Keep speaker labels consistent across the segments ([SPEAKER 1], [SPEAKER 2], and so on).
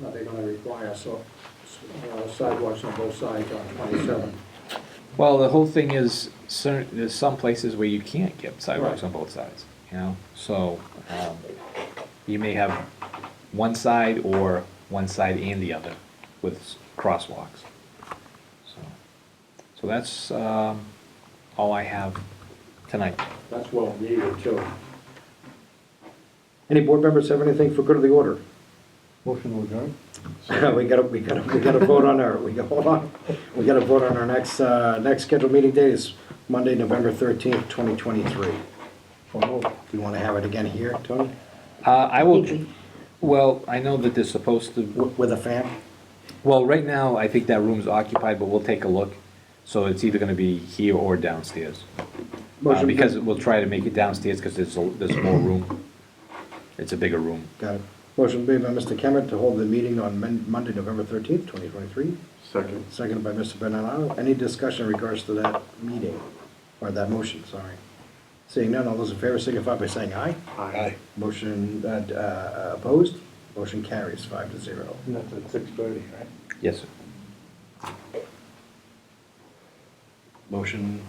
[SPEAKER 1] uh, they're gonna require, so uh, sidewalks on both sides on twenty-seven.
[SPEAKER 2] Well, the whole thing is, cer- there's some places where you can't get sidewalks on
[SPEAKER 1] Right.
[SPEAKER 2] both sides, you know? So, um, you may have one side or one side and the other with s- crosswalks. So, so that's, um, all I have tonight.
[SPEAKER 1] That's well needed too. Any board members have anything for good of the order?
[SPEAKER 3] Motion to adjourn?
[SPEAKER 1] We gotta, we gotta, we gotta vote on our, we gotta, hold on, we gotta vote on our next, uh, next scheduled meeting date is Monday, November thirteenth, twenty twenty-three.
[SPEAKER 3] So moved.
[SPEAKER 1] Do you wanna have it again here, Tony,
[SPEAKER 2] Uh, I will, well, I know that they're supposed to
[SPEAKER 1] W- with a fan?
[SPEAKER 2] Well, right now, I think that room's occupied, but we'll take a look. So it's either gonna be here or downstairs. Uh,
[SPEAKER 1] Motion.
[SPEAKER 2] Because we'll try to make it downstairs, because there's, a- there's more room. It's a bigger room.
[SPEAKER 1] Got it. Motion made by Mr. Kemet to hold the meeting on Mon- Monday, November thirteenth, twenty twenty-three,
[SPEAKER 3] Second.
[SPEAKER 1] seconded by Mr. Benado. Any discussion in regards to that meeting, or that motion, sorry? Seeing none, all those in favor signify by saying aye.
[SPEAKER 3] Aye.
[SPEAKER 1] Motion, uh, d- uh, opposed, motion carries five to zero.
[SPEAKER 3] And That's at six thirty, right?
[SPEAKER 2] Yes, sir.
[SPEAKER 1] Motion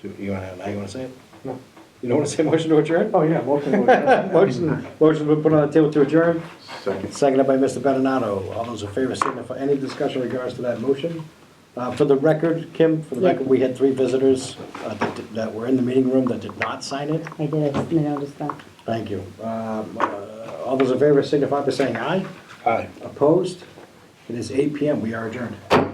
[SPEAKER 1] to, you wanna, now you wanna say it?
[SPEAKER 3] No.
[SPEAKER 1] You don't wanna say motion to adjourn?
[SPEAKER 3] Oh, yeah, motion to adjourn.
[SPEAKER 1] Motion, motion been put on the table to adjourn,
[SPEAKER 3] Second.
[SPEAKER 1] seconded by Mr. Beninato. All those in favor signify, any discussion in regards to that motion? Uh, for the record, Kim, for the
[SPEAKER 4] Yeah.
[SPEAKER 1] record, we had three visitors, uh, that, did- that were in the meeting room that did not sign it.
[SPEAKER 4] I did, I noticed that.
[SPEAKER 1] Thank you. Um, uh, all those in favor signify by saying aye.
[SPEAKER 3] Aye.
[SPEAKER 1] Opposed? It is eight PM, we are adjourned.